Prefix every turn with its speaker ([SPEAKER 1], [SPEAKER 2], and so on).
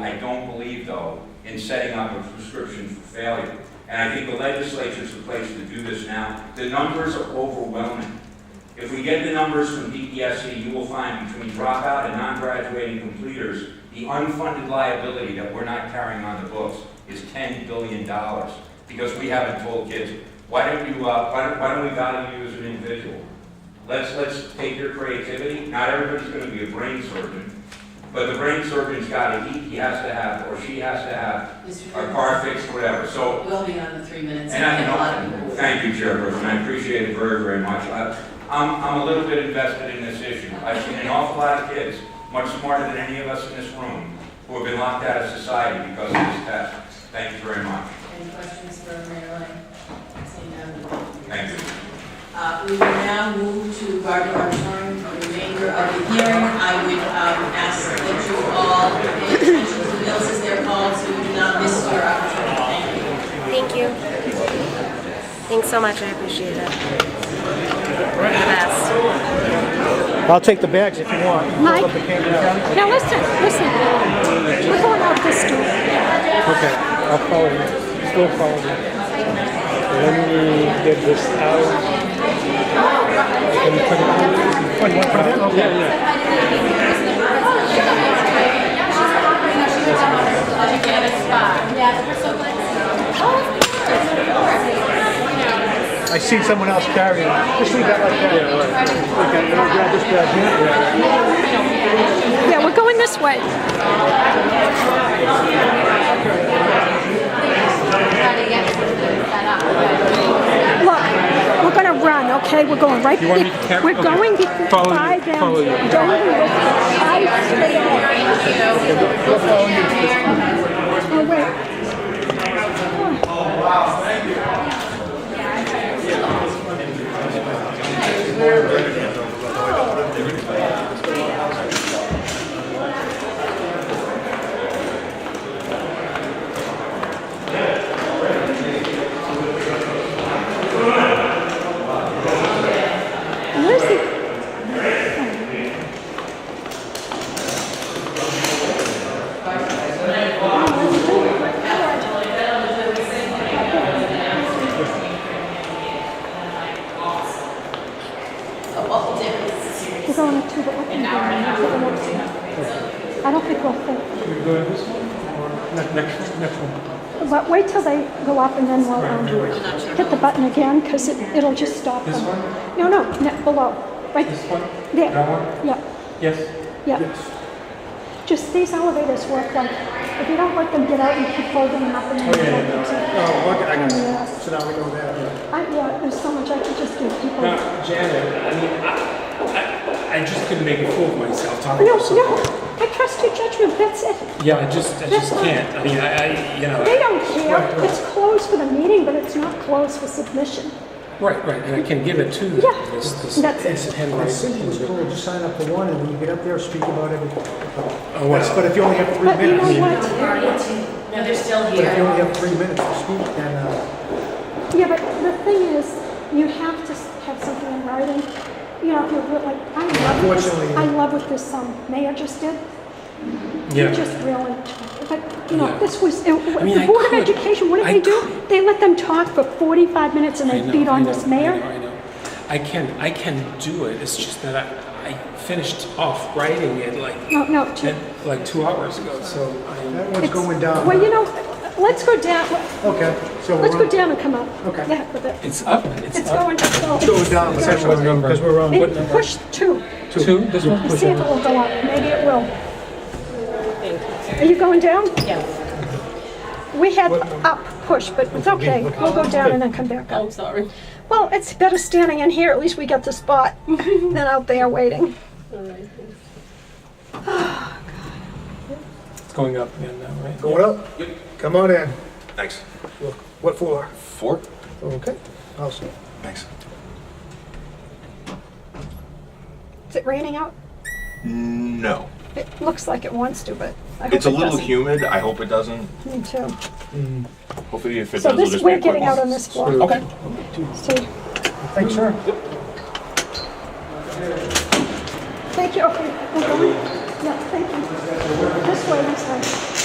[SPEAKER 1] I don't believe, though, in setting up a prescription for failure. And I think the legislature's the place to do this now. The numbers are overwhelming. If we get the numbers from DESE, you will find between dropout and non-graduating completers, the unfunded liability that we're not carrying on the books is $10 billion. Because we haven't told kids, why don't you, uh, why don't, why don't we value you as an individual? Let's, let's take your creativity. Not everybody's going to be a brain surgeon, but the brain surgeon's got to, he, he has to have, or she has to have,
[SPEAKER 2] Mr.
[SPEAKER 1] a
[SPEAKER 2] Chairman,
[SPEAKER 1] car fixed, whatever. So
[SPEAKER 2] we'll be on the three minutes.
[SPEAKER 1] and I
[SPEAKER 2] A lot of
[SPEAKER 1] know,
[SPEAKER 2] people-
[SPEAKER 1] thank you, Chairperson, I appreciate it very, very much. I- I'm, I'm a little bit invested in this issue. I've seen an awful lot of kids, much smarter than any of us in this room, who have been locked out of society because of this test. Thank you very much.
[SPEAKER 2] Any questions for Marilyn? Seeing none.
[SPEAKER 1] Thank you.
[SPEAKER 2] Uh, We will now move to Gardner Auditorium for the remainder of the hearing. I would um, ask that you all pay attention to bills as they're called, so you do not miss your opportunity. Thank you.
[SPEAKER 3] Thank you. Thanks so much. I appreciate it. You're the best.
[SPEAKER 4] I'll take the bags if you want.
[SPEAKER 5] Mike?
[SPEAKER 4] Hold up the camera.
[SPEAKER 5] Now listen, listen. We're going out this door.
[SPEAKER 4] Okay, I'll follow you. Still follow you. Let me get this out. Can you put it on? What, you want to put it in? Yeah, yeah. I seen someone else carrying it. Just leave that like that. Yeah, right. Okay, I'll grab this bag here.
[SPEAKER 5] Yeah, we're going this way. Look, we're gonna run, okay? We're going right.
[SPEAKER 4] You want me to cap-
[SPEAKER 5] We're
[SPEAKER 4] okay.
[SPEAKER 5] going
[SPEAKER 4] Follow you-
[SPEAKER 5] by them.
[SPEAKER 4] follow you.
[SPEAKER 5] Don't I Oh, wait. Where's the? We're going to the open door. I don't think we'll fit.
[SPEAKER 4] Should we go to this one? Ne- Next, one, next one.
[SPEAKER 5] But wait till they go up and then we'll um, hit the button again because it, it'll just stop them.
[SPEAKER 4] This one?
[SPEAKER 5] No, no, ne- below. Right
[SPEAKER 4] This one?
[SPEAKER 5] there.
[SPEAKER 4] That one?
[SPEAKER 5] Yeah,
[SPEAKER 4] Yes?
[SPEAKER 5] yeah. Just these elevators work like, if you don't let them get out, you keep holding them up and then
[SPEAKER 4] Okay,
[SPEAKER 5] let
[SPEAKER 4] no.
[SPEAKER 5] them to.
[SPEAKER 4] Oh, okay, I got
[SPEAKER 5] Yeah.
[SPEAKER 4] it. So now we know that, yeah.
[SPEAKER 5] I, yeah, there's so much I could just do people.
[SPEAKER 6] Now,
[SPEAKER 5] No,
[SPEAKER 6] Janet, I mean, I, I, I just couldn't make a fool of myself talking about something.
[SPEAKER 5] no, I trust your judgment, that's it.
[SPEAKER 6] Yeah, I just, I just can't. I mean, I, I, you
[SPEAKER 5] They
[SPEAKER 6] know,
[SPEAKER 5] don't care. It's closed for the meeting, but it's not closed for submission.
[SPEAKER 6] right, right, and I can give it to
[SPEAKER 5] Yeah,
[SPEAKER 6] this, this,
[SPEAKER 5] that's it.
[SPEAKER 6] this
[SPEAKER 4] I
[SPEAKER 6] Henry.
[SPEAKER 4] think it was cool, just sign up for one, and when you get up there, speak about everything.
[SPEAKER 6] Oh, well.
[SPEAKER 4] But if you only have three
[SPEAKER 5] But you
[SPEAKER 4] minutes,
[SPEAKER 5] know
[SPEAKER 4] but
[SPEAKER 5] what?
[SPEAKER 2] No, they're still
[SPEAKER 4] if you
[SPEAKER 2] here.
[SPEAKER 4] only have three minutes to speak, then, uh,
[SPEAKER 5] Yeah, but the thing is, you have to s- have something in writing. You know, if you're real- like, I love what this,
[SPEAKER 4] Unfortunately.
[SPEAKER 5] I love what this um, mayor just did. He
[SPEAKER 6] Yeah,
[SPEAKER 5] just really, but you know,
[SPEAKER 6] Yeah.
[SPEAKER 5] this was it,
[SPEAKER 6] I mean,
[SPEAKER 5] the
[SPEAKER 6] I
[SPEAKER 5] board of
[SPEAKER 6] could.
[SPEAKER 5] education. What did
[SPEAKER 6] I
[SPEAKER 5] they do?
[SPEAKER 6] could.
[SPEAKER 5] They let them talk for 45 minutes and
[SPEAKER 6] I
[SPEAKER 5] they
[SPEAKER 6] know,
[SPEAKER 5] beat
[SPEAKER 6] I
[SPEAKER 5] on
[SPEAKER 6] know,
[SPEAKER 5] this
[SPEAKER 6] I
[SPEAKER 5] mayor.
[SPEAKER 6] know, I know. I can, I can do it, it's just that I, I finished off writing it like,
[SPEAKER 5] No, no. Jim.
[SPEAKER 6] at- like two hours ago, so, I mean,
[SPEAKER 4] that one's
[SPEAKER 5] It's-
[SPEAKER 4] going down.
[SPEAKER 5] Well, you know, let's go down.
[SPEAKER 4] Okay, so we're
[SPEAKER 5] Let's go
[SPEAKER 4] on,
[SPEAKER 5] down and come up.
[SPEAKER 4] Okay.
[SPEAKER 5] Yeah, with it.
[SPEAKER 6] it's up,
[SPEAKER 5] It's
[SPEAKER 6] it's up.
[SPEAKER 5] going to go.
[SPEAKER 4] go down,
[SPEAKER 5] It's
[SPEAKER 4] because
[SPEAKER 5] going-
[SPEAKER 4] we're on, because we're on.
[SPEAKER 5] Maybe Push two.
[SPEAKER 6] Two, this one?
[SPEAKER 5] See if it will go up. Maybe it will. Are you going down? Yeah. We had up push, but it's okay. We'll go down and then come back up.
[SPEAKER 2] I'm sorry.
[SPEAKER 5] Well, it's better standing in here. At least we got the spot than out there waiting.
[SPEAKER 6] It's going up again now, right?
[SPEAKER 4] Going up? Come on in.
[SPEAKER 7] Thanks.
[SPEAKER 4] What floor?
[SPEAKER 7] Four?
[SPEAKER 4] Okay, I'll see.
[SPEAKER 7] Thanks.
[SPEAKER 5] Is it raining out?
[SPEAKER 7] No.
[SPEAKER 5] It looks like it wants to, but I hope
[SPEAKER 7] It's a
[SPEAKER 5] it
[SPEAKER 7] little
[SPEAKER 5] doesn't.
[SPEAKER 7] humid. I hope it doesn't.
[SPEAKER 5] Me too.
[SPEAKER 7] Hopefully, if it
[SPEAKER 5] So
[SPEAKER 7] does, it'll
[SPEAKER 5] this,
[SPEAKER 7] just be
[SPEAKER 5] we're
[SPEAKER 7] a quick
[SPEAKER 5] getting out
[SPEAKER 7] one.
[SPEAKER 5] on this floor.
[SPEAKER 7] Okay.
[SPEAKER 5] See.
[SPEAKER 4] Thanks, sir.
[SPEAKER 5] Thank you. Okay. we're going. Yeah, thank you. This way, this way.